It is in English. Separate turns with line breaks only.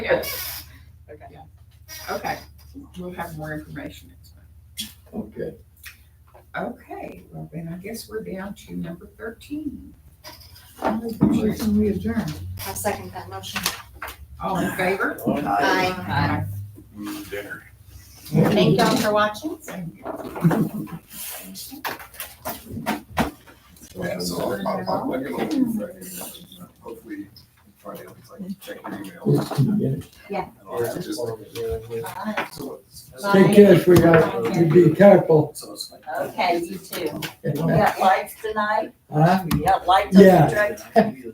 Yes. Okay.
Yeah.
Okay, we'll have more information next time.
Okay,
Okay, well then I guess we're down to number thirteen.
Motion we adjourn.
I'll second that motion.
All in favor?
Aye.
Mm, Dinner.
Thank y'all for watching.
well, so I'll, I'll, I'll look at it Friday, and hopefully Friday, I'll be like, check your email.
Yeah.
And I'll have to just-
Bye.
so
Take care, sweetheart. You be careful.
it's like-
Okay, you too.
and,
We
uh,
got lights tonight?
Huh?
We got lights on the
Yeah.
drug